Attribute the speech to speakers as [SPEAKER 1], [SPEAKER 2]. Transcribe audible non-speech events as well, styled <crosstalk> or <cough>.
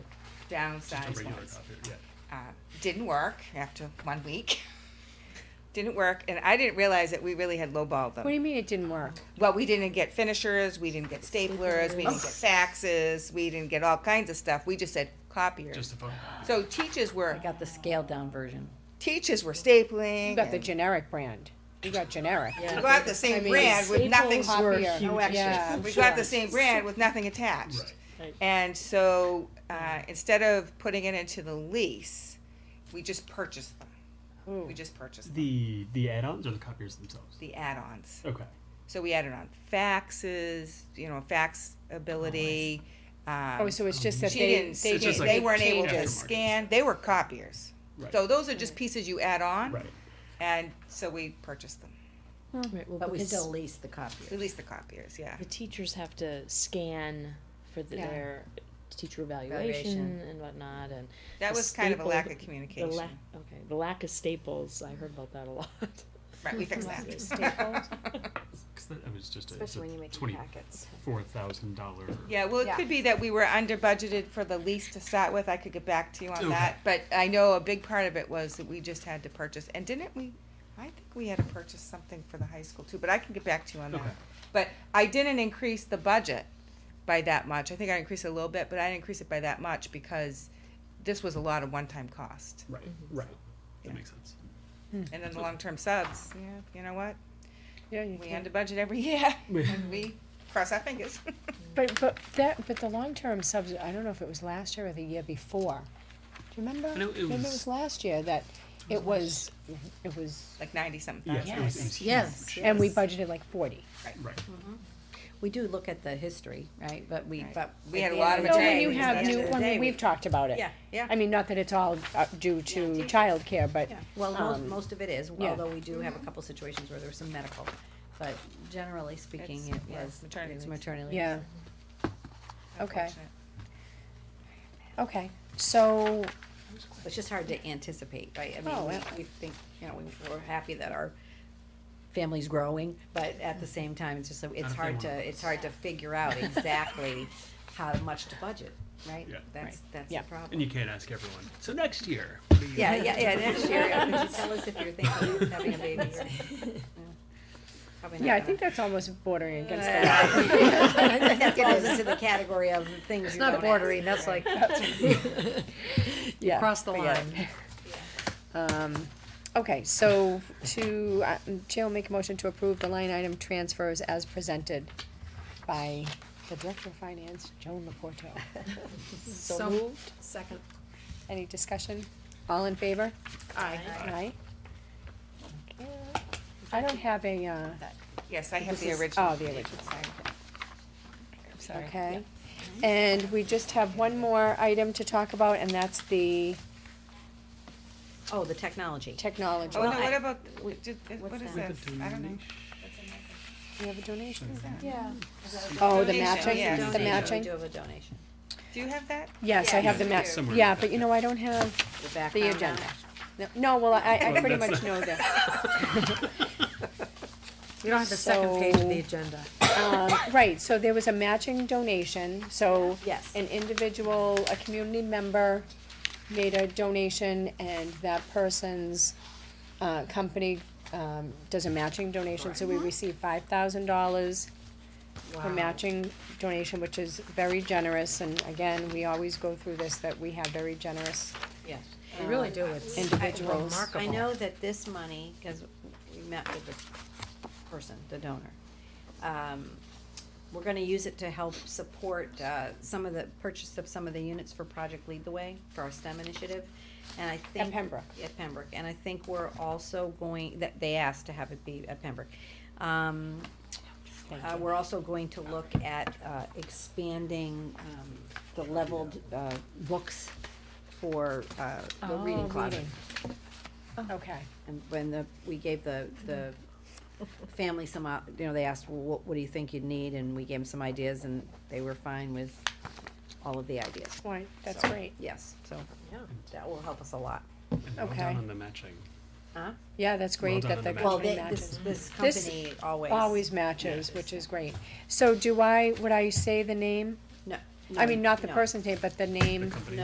[SPEAKER 1] Just a
[SPEAKER 2] downsized
[SPEAKER 1] regular
[SPEAKER 2] ones.
[SPEAKER 1] copier, yeah.
[SPEAKER 2] Uh, didn't work after one week. <laughs> Didn't work, and I didn't realize that we really had lowballed them.
[SPEAKER 3] What do you mean it didn't work?
[SPEAKER 2] Well, we didn't get finishers, we didn't get staplers, we didn't get faxes, we didn't get all kinds of stuff, we just said copiers.
[SPEAKER 1] Just a phone.
[SPEAKER 2] So teachers
[SPEAKER 3] I
[SPEAKER 2] were,
[SPEAKER 3] got the scaled down version.
[SPEAKER 2] teachers were stapling.
[SPEAKER 3] You got the
[SPEAKER 2] and-
[SPEAKER 3] generic brand. You got generic.
[SPEAKER 2] We got the
[SPEAKER 3] I
[SPEAKER 2] same
[SPEAKER 3] mean,
[SPEAKER 2] brand with nothing,
[SPEAKER 3] staples were
[SPEAKER 2] copier, no
[SPEAKER 3] huge. Yeah,
[SPEAKER 2] extra. We
[SPEAKER 3] sure.
[SPEAKER 2] got the same brand with nothing attached.
[SPEAKER 1] Right.
[SPEAKER 2] And so, uh, instead of putting it into the lease, we just purchased them. We just purchased them,
[SPEAKER 1] The the add-ons or the copiers themselves.
[SPEAKER 2] the add-ons.
[SPEAKER 1] Okay.
[SPEAKER 2] So we added on faxes, you know, fax ability. um,
[SPEAKER 3] Oh, so it's just that
[SPEAKER 2] She
[SPEAKER 3] they,
[SPEAKER 2] didn't,
[SPEAKER 3] they,
[SPEAKER 2] they,
[SPEAKER 1] just like
[SPEAKER 2] they
[SPEAKER 1] a
[SPEAKER 2] weren't able to
[SPEAKER 1] aftermarket
[SPEAKER 2] scan, they were copiers.
[SPEAKER 1] Right.
[SPEAKER 2] So those are just pieces you add on,
[SPEAKER 1] right.
[SPEAKER 2] and so we purchased them,
[SPEAKER 4] Right, well,
[SPEAKER 3] But we
[SPEAKER 4] because
[SPEAKER 3] still lease the
[SPEAKER 2] at
[SPEAKER 3] copier.
[SPEAKER 2] least the copiers, yeah.
[SPEAKER 4] the teachers have to scan for the,
[SPEAKER 3] Yeah.
[SPEAKER 4] their teacher evaluation,
[SPEAKER 3] Evaluation.
[SPEAKER 4] and whatnot, and
[SPEAKER 2] That
[SPEAKER 4] The
[SPEAKER 2] was kind of a
[SPEAKER 4] staple-
[SPEAKER 2] lack of
[SPEAKER 4] the lack.
[SPEAKER 2] communication,
[SPEAKER 4] Okay, the lack of staples. I heard about that a lot.
[SPEAKER 2] right, we fixed
[SPEAKER 5] Lack of
[SPEAKER 2] that.
[SPEAKER 5] staples.
[SPEAKER 2] <laughs>
[SPEAKER 1] Because that was just a, it's
[SPEAKER 5] Especially when you
[SPEAKER 1] a
[SPEAKER 5] make
[SPEAKER 1] twenty
[SPEAKER 5] packets.
[SPEAKER 1] four thousand dollar.
[SPEAKER 2] Yeah, well, it
[SPEAKER 5] Yeah.
[SPEAKER 2] could be that we were under budgeted for the lease to start with, I could get back to you
[SPEAKER 1] Okay.
[SPEAKER 2] on that, but I know a big part of it was that we just had to purchase, and didn't we? I think we had to purchase something for the high school too, but I can get back to you on that.
[SPEAKER 1] Okay.
[SPEAKER 2] But I didn't increase the budget by that much. I think I increased it a little bit, but I didn't increase it by that much because this was a lot of one-time cost.
[SPEAKER 1] Right.
[SPEAKER 6] Mm-hmm.
[SPEAKER 1] Right.
[SPEAKER 2] Yeah.
[SPEAKER 1] That makes sense.
[SPEAKER 2] And then the long-term subs, yeah, you know what?
[SPEAKER 3] Yeah, you
[SPEAKER 2] We
[SPEAKER 3] can't-
[SPEAKER 2] under budget every <laughs> year, and we cross our fingers. <laughs>
[SPEAKER 3] But, but that, but the long-term subs, I don't know if it was last year or the year before. Do you remember?
[SPEAKER 1] I know it
[SPEAKER 3] Maybe it
[SPEAKER 1] was-
[SPEAKER 3] was last year that it was, it was,
[SPEAKER 2] Like ninety-something
[SPEAKER 1] <laughs> Yes.
[SPEAKER 2] thousand.
[SPEAKER 1] It was, it was huge.
[SPEAKER 6] Yes.
[SPEAKER 3] and we budgeted like forty.
[SPEAKER 1] Right.
[SPEAKER 6] We do look at the history, right, but we,
[SPEAKER 2] Right.
[SPEAKER 6] but.
[SPEAKER 2] We had
[SPEAKER 6] at
[SPEAKER 2] a
[SPEAKER 6] the
[SPEAKER 2] lot
[SPEAKER 6] end
[SPEAKER 2] of
[SPEAKER 3] No,
[SPEAKER 2] day,
[SPEAKER 3] when you
[SPEAKER 2] because
[SPEAKER 3] have
[SPEAKER 2] that's
[SPEAKER 3] new,
[SPEAKER 2] the
[SPEAKER 3] I
[SPEAKER 2] day
[SPEAKER 3] mean,
[SPEAKER 2] we-
[SPEAKER 3] we've talked about it.
[SPEAKER 6] Yeah, yeah.
[SPEAKER 3] I mean, not that it's all uh, due to childcare, but,
[SPEAKER 6] Well, most,
[SPEAKER 3] um,
[SPEAKER 6] most of it is,
[SPEAKER 3] yeah.
[SPEAKER 6] although we do have a couple situations where there's some medical, but generally speaking,
[SPEAKER 2] It's-
[SPEAKER 6] it
[SPEAKER 2] yeah,
[SPEAKER 6] was,
[SPEAKER 2] maternity
[SPEAKER 6] it's
[SPEAKER 2] leave.
[SPEAKER 6] maternity. leave.
[SPEAKER 3] yeah, Okay.
[SPEAKER 2] Unfortunate.
[SPEAKER 3] okay. So,
[SPEAKER 6] It's just hard to anticipate, right, I
[SPEAKER 3] Oh,
[SPEAKER 6] mean,
[SPEAKER 3] yeah.
[SPEAKER 6] we, we think, you know, we- we're happy that our family's growing, but at the same time, it's just, so
[SPEAKER 1] Not
[SPEAKER 6] it's
[SPEAKER 1] if they
[SPEAKER 6] hard
[SPEAKER 1] want
[SPEAKER 6] to,
[SPEAKER 1] it.
[SPEAKER 6] it's hard to figure out exactly how much to budget, right?
[SPEAKER 1] Yeah.
[SPEAKER 6] That's, that's the
[SPEAKER 3] Yeah.
[SPEAKER 6] problem.
[SPEAKER 1] And you can't ask everyone. So next year. What do you
[SPEAKER 6] Yeah, yeah, yeah, next year,
[SPEAKER 1] <laughs>
[SPEAKER 6] could you tell us if you're thinking of having a
[SPEAKER 3] <laughs>
[SPEAKER 6] baby? or- Probably not
[SPEAKER 3] yeah, I
[SPEAKER 6] gonna-
[SPEAKER 3] think that's almost bordering against
[SPEAKER 6] Uh,
[SPEAKER 3] that.
[SPEAKER 6] I think <laughs> That falls into the category of things you don't ask.
[SPEAKER 5] that's
[SPEAKER 6] <laughs>
[SPEAKER 3] <laughs>
[SPEAKER 5] like.
[SPEAKER 3] Yeah.
[SPEAKER 6] Cross the
[SPEAKER 3] yeah.
[SPEAKER 6] line.
[SPEAKER 3] Um, okay, so to, uh, Chair will make a motion to approve the line item transfers as presented by the Director of Finance, Joan Laporto.
[SPEAKER 5] So
[SPEAKER 3] So moved.
[SPEAKER 5] Second.
[SPEAKER 3] Any discussion? All in favor?
[SPEAKER 5] Aye.
[SPEAKER 3] Aye. I don't have a, uh,
[SPEAKER 2] Yes, I have
[SPEAKER 3] this
[SPEAKER 2] the
[SPEAKER 3] is-
[SPEAKER 2] original.
[SPEAKER 3] Oh, the original,
[SPEAKER 2] Sorry. I'm sorry.
[SPEAKER 3] okay. And we just have one more item to talk about, and that's the
[SPEAKER 6] Oh, the technology.
[SPEAKER 3] technology.
[SPEAKER 2] Oh, no,
[SPEAKER 6] Well, I-
[SPEAKER 2] what about, did- what
[SPEAKER 6] what's
[SPEAKER 2] is
[SPEAKER 6] that?
[SPEAKER 2] this? I don't know.
[SPEAKER 6] <laughs>
[SPEAKER 3] We have a donation?
[SPEAKER 5] Yeah.
[SPEAKER 3] Oh, the
[SPEAKER 2] Donation,
[SPEAKER 3] matching,
[SPEAKER 2] yeah.
[SPEAKER 3] the
[SPEAKER 6] Donation. We
[SPEAKER 3] matching?
[SPEAKER 6] do have a donation.
[SPEAKER 2] Do you have that?
[SPEAKER 3] Yes, I have the
[SPEAKER 1] Yeah,
[SPEAKER 3] match,
[SPEAKER 1] somewhere in
[SPEAKER 3] yeah,
[SPEAKER 1] the
[SPEAKER 3] but you know, I don't have
[SPEAKER 6] The background.
[SPEAKER 3] the
[SPEAKER 6] on
[SPEAKER 3] agenda.
[SPEAKER 6] that.
[SPEAKER 3] No- No, well, I, I
[SPEAKER 1] Well,
[SPEAKER 3] pretty
[SPEAKER 1] that's
[SPEAKER 3] <laughs> much know that.
[SPEAKER 5] We don't have the second page of the
[SPEAKER 3] So-
[SPEAKER 5] agenda.
[SPEAKER 3] Um, right, so there was a matching donation, so.
[SPEAKER 6] Yes.
[SPEAKER 3] An individual, a community member made a donation and that person's, uh, company, um, does a matching donation, so we receive five thousand dollars for
[SPEAKER 6] Wow.
[SPEAKER 3] matching donation, which is very generous, and again, we always go through this, that we have very generous um,
[SPEAKER 6] Yes.
[SPEAKER 5] We really do, it's
[SPEAKER 3] individuals.
[SPEAKER 6] I
[SPEAKER 5] remarkable.
[SPEAKER 6] know that this money, cause we met with the person, the donor, um, we're gonna use it to help support, uh, some of the, purchase of some of the units for Project Lead the Way, for our STEM initiative, and I think.
[SPEAKER 3] Pembroke.
[SPEAKER 6] At Pembroke, and I think we're also going, that, they asked to have it be at Pembroke. Um, uh, we're also going to look at, uh, expanding, um, the leveled, uh, books for, uh,
[SPEAKER 3] Oh,
[SPEAKER 6] the reading closet.
[SPEAKER 3] Okay,
[SPEAKER 6] And when the, we gave the, the family some, op- you know, they asked, well, what, what do you think you'd need, and we gave them some ideas, and they were fine with all of the ideas.
[SPEAKER 3] right, that's
[SPEAKER 6] So,
[SPEAKER 3] great,
[SPEAKER 6] Yes, so, that will help us a lot.
[SPEAKER 1] <laughs> And well
[SPEAKER 3] Okay.
[SPEAKER 1] done on the matching.
[SPEAKER 6] Huh?
[SPEAKER 3] yeah, that's great
[SPEAKER 1] done
[SPEAKER 3] that
[SPEAKER 1] on
[SPEAKER 3] the
[SPEAKER 1] the match.
[SPEAKER 6] Well,
[SPEAKER 3] company
[SPEAKER 6] they- this,
[SPEAKER 3] matches.
[SPEAKER 6] this
[SPEAKER 3] This
[SPEAKER 6] company always.
[SPEAKER 3] Always matches, which is great, so do I, would I say the name?
[SPEAKER 6] No.
[SPEAKER 3] I mean, not the
[SPEAKER 6] no.
[SPEAKER 3] person's name, but the name?
[SPEAKER 1] The company.